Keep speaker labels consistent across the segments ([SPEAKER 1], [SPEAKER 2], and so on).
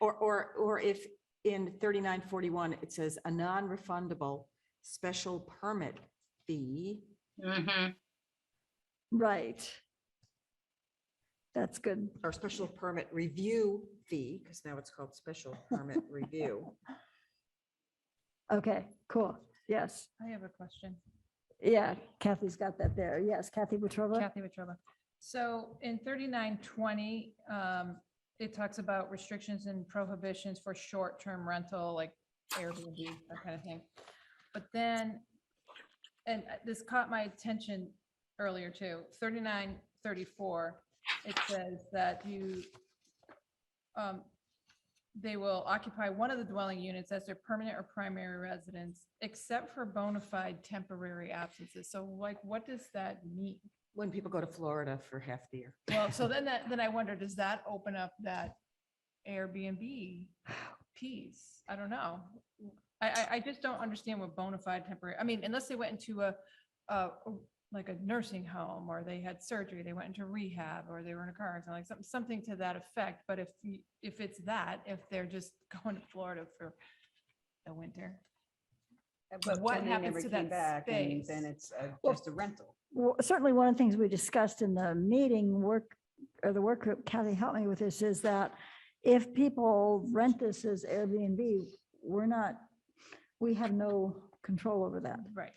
[SPEAKER 1] Or, or, or if in thirty-nine forty-one, it says a non-refundable special permit fee.
[SPEAKER 2] Mhm.
[SPEAKER 3] Right. That's good.
[SPEAKER 1] or special permit review fee, because now it's called special permit review.
[SPEAKER 3] Okay, cool. Yes.
[SPEAKER 4] I have a question.
[SPEAKER 3] Yeah, Kathy's got that there. Yes, Kathy Wetruba.
[SPEAKER 4] Kathy Wetruba. So in thirty-nine twenty, um, it talks about restrictions and prohibitions for short-term rental, like Airbnb, that kind of thing. But then, and uh, this caught my attention earlier too, thirty-nine thirty-four, it says that you, um, they will occupy one of the dwelling units as their permanent or primary residence, except for bona fide temporary absences. So like, what does that mean?
[SPEAKER 1] When people go to Florida for half the year.
[SPEAKER 4] Well, so then that, then I wonder, does that open up that Airbnb piece? I don't know. I, I, I just don't understand what bona fide temporary, I mean, unless they went into a, a, like a nursing home or they had surgery, they went into rehab or they were in a car accident, like something, something to that effect. But if, you- if it's that, if they're just going to Florida for the winter. But what
[SPEAKER 5] then they
[SPEAKER 4] happens
[SPEAKER 5] never
[SPEAKER 4] to
[SPEAKER 5] came
[SPEAKER 4] that
[SPEAKER 5] back, and
[SPEAKER 4] space?
[SPEAKER 5] Then it's a-
[SPEAKER 3] Well-
[SPEAKER 5] just a rental.
[SPEAKER 3] Well, Certainly, one of the things we discussed in the meeting work, or the work group, Kathy helped me with this, is that if people rent this as Airbnb, we're not, we have no control over that.
[SPEAKER 4] Right.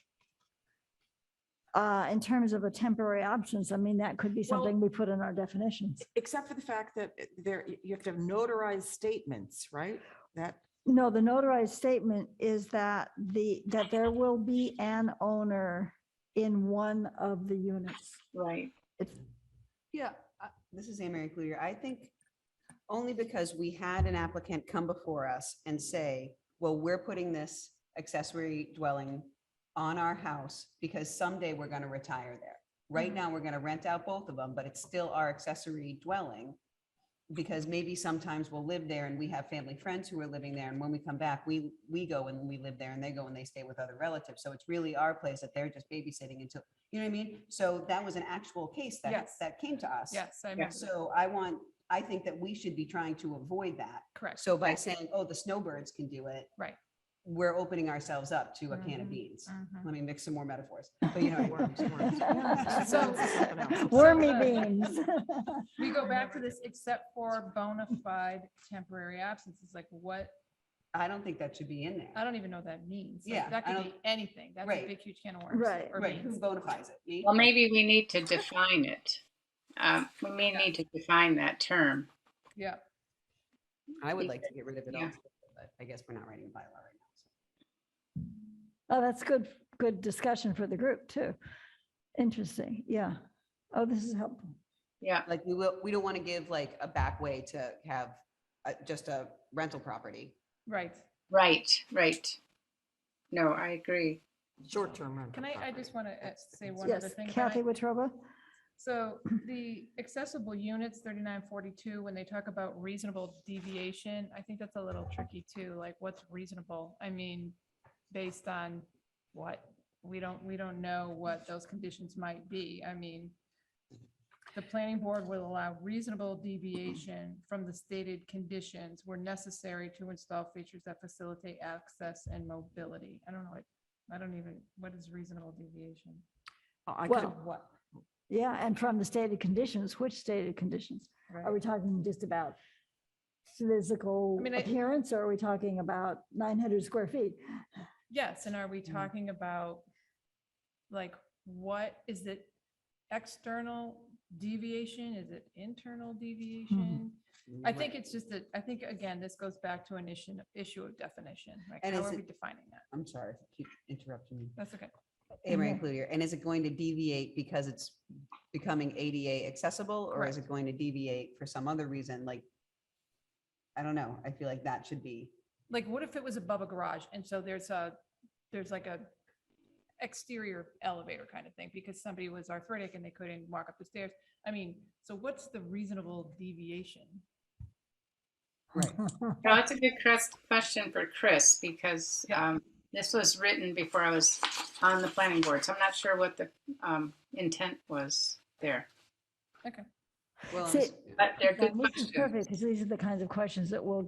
[SPEAKER 3] Uh, in terms of a temporary absence, I mean, that could be
[SPEAKER 1] Well-
[SPEAKER 3] something we put in our definitions.
[SPEAKER 1] Except for the fact that there, you- you have to have notarized statements, right? That,
[SPEAKER 3] No, the notarized statement is that the, that there will be an owner in one of the units.
[SPEAKER 5] Right.
[SPEAKER 3] It's,
[SPEAKER 4] Yeah.
[SPEAKER 5] uh, This is Anne Mary Cludier. I think only because we had an applicant come before us and say, well, we're putting this accessory dwelling on our house because someday we're going to retire there. Right now, we're going to rent out both of them, but it's still our accessory dwelling. Because maybe sometimes we'll live there and we have family friends who are living there. And when we come back, we, we go and we live there and they go and they stay with other relatives. So it's really our place that they're just babysitting until, you know what I mean? So that was an actual case that,
[SPEAKER 4] Yes.
[SPEAKER 5] that came to us.
[SPEAKER 4] Yes, I
[SPEAKER 5] Yeah,
[SPEAKER 4] remember.
[SPEAKER 5] So I want, I think that we should be trying to avoid that.
[SPEAKER 4] Correct.
[SPEAKER 5] So by saying, oh, the snowbirds can do it.
[SPEAKER 4] Right.
[SPEAKER 5] We're opening ourselves up to a can
[SPEAKER 4] Mhm,
[SPEAKER 5] of beans.
[SPEAKER 4] Mhm.
[SPEAKER 5] Let me mix some more metaphors. But you know, what I mean.
[SPEAKER 1] Oh, Worms, worms.
[SPEAKER 4] So-
[SPEAKER 1] Something else.
[SPEAKER 3] wormy
[SPEAKER 4] uh,
[SPEAKER 3] beans.
[SPEAKER 4] We go back to this, except for bona fide temporary absences, like what,
[SPEAKER 5] I don't think that should be in
[SPEAKER 4] I
[SPEAKER 5] there.
[SPEAKER 4] don't even know what that means. Like,
[SPEAKER 5] Yeah,
[SPEAKER 4] That
[SPEAKER 5] I
[SPEAKER 4] could be
[SPEAKER 5] don't-
[SPEAKER 4] anything. That's a
[SPEAKER 5] Right.
[SPEAKER 4] big, huge can of worms.
[SPEAKER 3] Right.
[SPEAKER 4] or
[SPEAKER 5] Right, who
[SPEAKER 4] beans.
[SPEAKER 5] bona fides it? Me?
[SPEAKER 2] Well, maybe we need to define it. Uh, We may need to define that term.
[SPEAKER 4] Yeah,
[SPEAKER 5] I would like to get rid of it all,
[SPEAKER 2] Yeah.
[SPEAKER 5] but I guess we're not writing a bylaw right now. so.
[SPEAKER 3] Oh, that's good, good discussion for the group too. Interesting, yeah. Oh, this is helpful.
[SPEAKER 2] Yeah,
[SPEAKER 5] Like, we will, we don't want to give like a back way to have uh, just a rental property.
[SPEAKER 4] right.
[SPEAKER 2] right, right. No, I agree.
[SPEAKER 1] Short-term rental.
[SPEAKER 4] Can I, I just
[SPEAKER 1] property.
[SPEAKER 4] want to
[SPEAKER 1] That's the
[SPEAKER 4] say one other
[SPEAKER 3] Yes,
[SPEAKER 4] thing. about
[SPEAKER 3] Kathy
[SPEAKER 4] it.
[SPEAKER 3] Wetruba?
[SPEAKER 4] So the accessible units, thirty-nine forty-two, when they talk about reasonable deviation, I think that's a little tricky too, like what's reasonable? I mean, based on what? We don't, we don't know what those conditions might be. I mean, the planning board will allow reasonable deviation from the stated conditions where necessary to install features that facilitate access and mobility. I don't know, I- I don't even, what is reasonable deviation?
[SPEAKER 1] Oh, I could
[SPEAKER 3] Well,
[SPEAKER 1] have-
[SPEAKER 4] What?
[SPEAKER 3] Yeah, and from the stated conditions, which stated conditions? Are
[SPEAKER 4] Right.
[SPEAKER 3] we talking just about physical
[SPEAKER 4] I mean, I-
[SPEAKER 3] appearance or are we talking about 900 square feet?
[SPEAKER 4] Yes, and are we
[SPEAKER 5] Mm-hmm.
[SPEAKER 4] talking about, like, what is it external deviation? Is it internal deviation?
[SPEAKER 5] Hmm.
[SPEAKER 4] I think it's just that, I think, again, this goes back to an issue, issue of definition, like,
[SPEAKER 5] And
[SPEAKER 4] how
[SPEAKER 5] is
[SPEAKER 4] are we
[SPEAKER 5] it-
[SPEAKER 4] defining that?
[SPEAKER 5] I'm sorry, if I keep interrupting you.
[SPEAKER 4] That's okay.
[SPEAKER 5] Amory Cludier, and is it going to deviate because it's becoming ADA accessible, or is it going to deviate for some other reason, like? I don't know, I feel like that should be,
[SPEAKER 4] Like, what if it was above a garage, and so there's a, there's like a exterior elevator kind of thing, because somebody was arthritic and they couldn't walk up the stairs? I mean, so what's the reasonable deviation?
[SPEAKER 5] right,
[SPEAKER 2] Well, that's a good crest- question for Chris because
[SPEAKER 4] Yeah.
[SPEAKER 2] um, this was written before I was on the planning board, so I'm not sure what the um, intent was there.
[SPEAKER 4] Okay.
[SPEAKER 5] well,
[SPEAKER 3] See,
[SPEAKER 5] it's-
[SPEAKER 2] But they're good
[SPEAKER 3] Now, This is
[SPEAKER 2] questions.
[SPEAKER 3] perfect because these are the kinds of questions that we'll get